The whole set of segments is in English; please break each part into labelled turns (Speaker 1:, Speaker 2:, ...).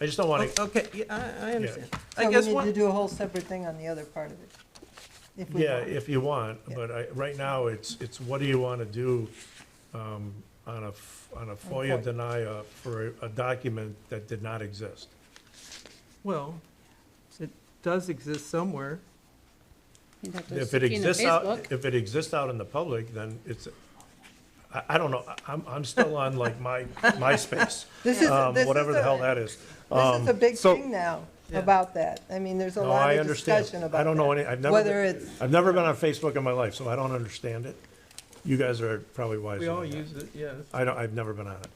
Speaker 1: I just don't want
Speaker 2: Oh,
Speaker 1: to,
Speaker 3: Okay, yeah, I, I understand. I
Speaker 2: So
Speaker 3: guess
Speaker 2: we need to
Speaker 3: one,
Speaker 2: do a whole separate thing on the other part of it. If we
Speaker 1: yeah,
Speaker 2: want.
Speaker 1: if you want,
Speaker 2: Yeah.
Speaker 1: but I, right now, it's, it's what do you want to do um, on a, f- on a FOIA
Speaker 2: FOIA.
Speaker 1: denial for a- a document that did not exist?
Speaker 3: well, it does exist somewhere.
Speaker 4: You'd have to
Speaker 1: If
Speaker 4: stick
Speaker 1: it
Speaker 4: it in the
Speaker 1: exists out,
Speaker 4: Facebook.
Speaker 1: if it exists out in the public, then it's, I, I don't know, I- I'm, I'm still on like my, MySpace,
Speaker 2: This is,
Speaker 1: um,
Speaker 2: this is
Speaker 1: whatever the
Speaker 2: a-
Speaker 1: hell that is.
Speaker 2: This is a
Speaker 1: Um,
Speaker 2: big
Speaker 1: so-
Speaker 2: thing now
Speaker 3: Yeah.
Speaker 2: about that. I mean, there's a
Speaker 1: No,
Speaker 2: lot
Speaker 1: I
Speaker 2: of
Speaker 1: understand.
Speaker 2: discussion about
Speaker 1: I don't know
Speaker 2: that.
Speaker 1: any, I've never.
Speaker 2: Whether
Speaker 1: been-
Speaker 2: it's-
Speaker 1: I've never been on Facebook in my life, so I don't understand it. You guys are probably wiser
Speaker 3: We all
Speaker 1: than I am.
Speaker 3: use it, yes.
Speaker 1: I don't, I've never been on it.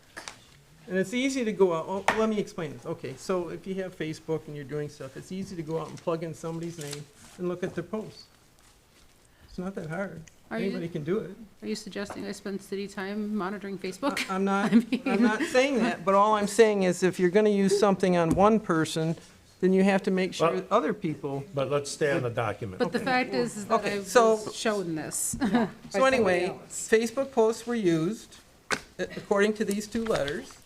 Speaker 3: And it's easy to go out, oh, let me explain this. Okay, so if you have Facebook and you're doing stuff, it's easy to go out and plug in somebody's name and look at their posts. It's not that hard.
Speaker 4: Are you-
Speaker 3: Anybody can do it.
Speaker 4: Are you suggesting I spend city time monitoring Facebook?
Speaker 3: I- I'm not,
Speaker 4: I mean-
Speaker 3: I'm not saying that, but all I'm saying is if you're gonna use something on one person, then you have to make sure
Speaker 1: Well-
Speaker 3: that other people.
Speaker 1: But let's stay on the document.
Speaker 4: But the fact is is that
Speaker 3: Okay,
Speaker 4: I
Speaker 3: so-
Speaker 4: was shown this. by
Speaker 3: So anyway,
Speaker 4: somebody else.
Speaker 3: Facebook posts were used, a- according to these two letters.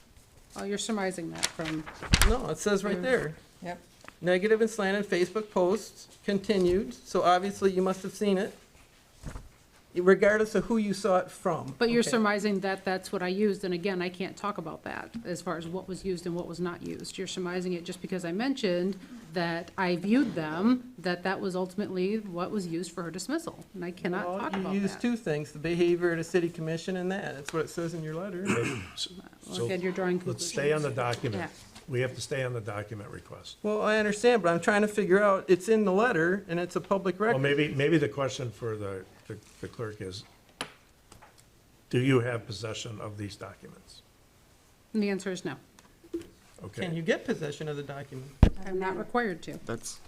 Speaker 4: Oh, you're surmising that from,
Speaker 3: No, it says right there.
Speaker 2: Yep.
Speaker 3: Negative and slanted Facebook posts continued, so obviously you must have seen it, regardless of who you saw it from.
Speaker 4: but you're
Speaker 3: Okay.
Speaker 4: surmising that that's what I used, and again, I can't talk about that as far as what was used and what was not used. You're surmising it just because I mentioned that I viewed them, that that was ultimately what was used for her dismissal, and I cannot
Speaker 3: Well,
Speaker 4: talk
Speaker 3: You
Speaker 4: about
Speaker 3: use
Speaker 4: that.
Speaker 3: two things, the behavior at a city commission and that, that's what it says in your letter.
Speaker 4: Well, Again, you're drawing
Speaker 1: Let's
Speaker 4: conclusions.
Speaker 1: stay on the document.
Speaker 4: Yeah.
Speaker 1: We have to stay on the document request.
Speaker 3: Well, I understand, but I'm trying to figure out, it's in the letter and it's a public
Speaker 1: Well,
Speaker 3: record.
Speaker 1: maybe, maybe the question for the, the- the clerk is, do you have possession of these documents?
Speaker 4: And the answer is no.
Speaker 3: Can
Speaker 1: Okay,
Speaker 3: you get possession of the document?
Speaker 4: I'm not required to.
Speaker 5: That's,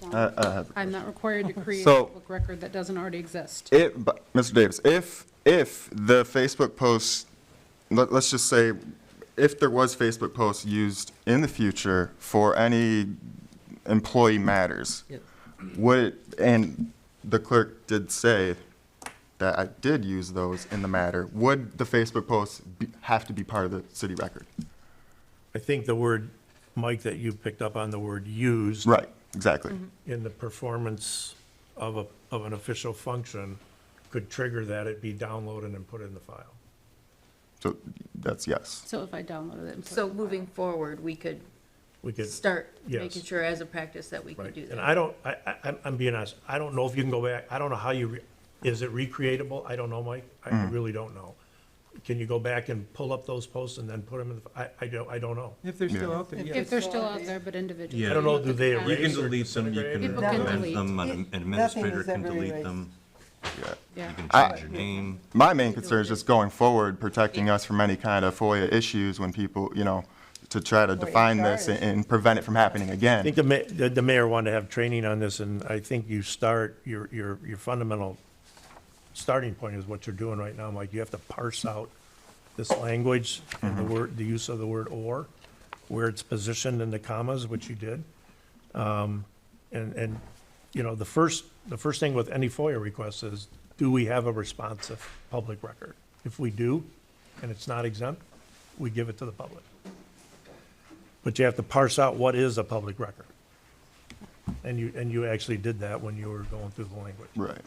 Speaker 4: Don't.
Speaker 5: I, I have,
Speaker 4: I'm not required to create a
Speaker 5: So-
Speaker 4: public record that doesn't already exist.
Speaker 5: it, but, Mr. Davis, if, if the Facebook posts, let, let's just say, if there was Facebook posts used in the future for any employee matters,
Speaker 3: Yes.
Speaker 5: would, it- and the clerk did say that I did use those in the matter, would the Facebook posts be- have to be part of the city record?
Speaker 1: I think the word, Mike, that you picked up on the word used
Speaker 5: Right, exactly.
Speaker 1: in the performance of a, of an official function could trigger that it be downloaded and put in the file.
Speaker 5: So that's yes.
Speaker 4: So if I downloaded it and put it
Speaker 6: So
Speaker 4: in the
Speaker 6: moving forward, we could
Speaker 1: We could,
Speaker 6: start
Speaker 1: Yes.
Speaker 6: making sure as a practice that we could
Speaker 1: right,
Speaker 6: do
Speaker 1: and
Speaker 6: that.
Speaker 1: I don't, I, I, I'm- I'm being honest, I don't know if you can go back, I don't know how you, re- is it recreatable? I don't know, Mike, I really don't know. Can you go back and pull up those posts and then put them in the, I, I don't, I don't know.
Speaker 3: If they're still
Speaker 5: Yeah.
Speaker 3: out there,
Speaker 4: file. If
Speaker 3: yes.
Speaker 4: they're still out there, but individually.
Speaker 7: Yeah. I don't
Speaker 1: know, do they
Speaker 4: You have to
Speaker 7: You
Speaker 1: erase?
Speaker 7: can
Speaker 4: have-
Speaker 1: Razor
Speaker 7: delete them, you can
Speaker 1: disintegrated.
Speaker 4: People can
Speaker 7: amend
Speaker 4: delete.
Speaker 7: them,
Speaker 2: It-
Speaker 7: an
Speaker 2: nothing
Speaker 7: administrator
Speaker 2: is
Speaker 7: can
Speaker 2: ever
Speaker 7: delete
Speaker 2: erased.
Speaker 7: them,
Speaker 5: Yeah.
Speaker 4: Yeah.
Speaker 7: you can
Speaker 5: I-
Speaker 7: change your name.
Speaker 5: My main concern is just going forward, protecting us from any kind of FOIA issues when people, you know, to try to
Speaker 2: Or
Speaker 5: define this
Speaker 2: HRs.
Speaker 5: and- and prevent it from happening
Speaker 1: I think
Speaker 5: again.
Speaker 1: the ma, the, the mayor wanted to have training on this, and I think you start, your, your, your fundamental starting point is what you're doing right now, Mike, you have to parse out this language and the word, the use of the word or, where it's positioned in the commas, which you did. Um, and, and, you know, the first, the first thing with any FOIA request is, do we have a responsive public record? If we do, and it's not exempt, we give it to the public. But you have to parse out what is a public record. And you, and you actually did that when you were going through the language.
Speaker 5: Right.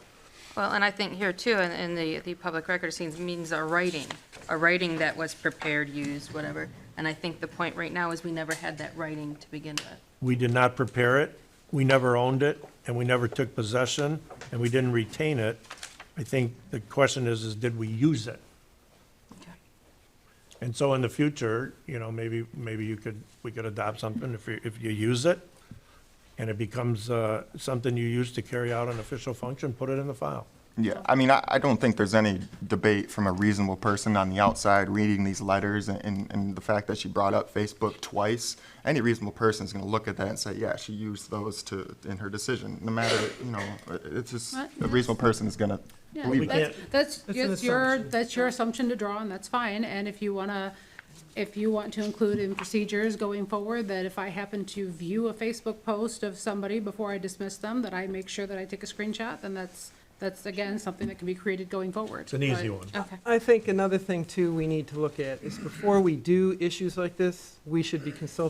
Speaker 8: Well, and I think here too, in, in the, the public record scenes means a writing, a writing that was prepared, used, whatever. And I think the point right now is we never had that writing to begin with.
Speaker 1: We did not prepare it, we never owned it, and we never took possession, and we didn't retain it. I think the question is, is did we use it? And so in the future, you know, maybe, maybe you could, we could adopt something if you, if you use it, and it becomes, uh, something you use to carry out an official function, put it in the file.
Speaker 5: Yeah, I mean, I, I don't think there's any debate from a reasonable person on the outside reading these letters and- and, and the fact that she brought up Facebook twice. Any reasonable person is gonna look at that and say, yeah, she used those to, in her decision, no matter, you know, it- it's just,
Speaker 4: What?
Speaker 5: a reasonable person is gonna
Speaker 4: Yeah,
Speaker 5: believe that.
Speaker 4: that's, that's,
Speaker 3: It's an
Speaker 4: that's your,
Speaker 3: assumption.
Speaker 4: that's your assumption to draw, and that's fine, and if you wanna, if you want to include in procedures going forward, that if I happen to view a Facebook post of somebody before I dismiss them, that I make sure that I take a screenshot, then that's, that's again, something that can be created going forward.
Speaker 1: It's an easy one.
Speaker 4: Okay.
Speaker 3: I think another thing too we need to look at is before we do issues like this, we should be consulting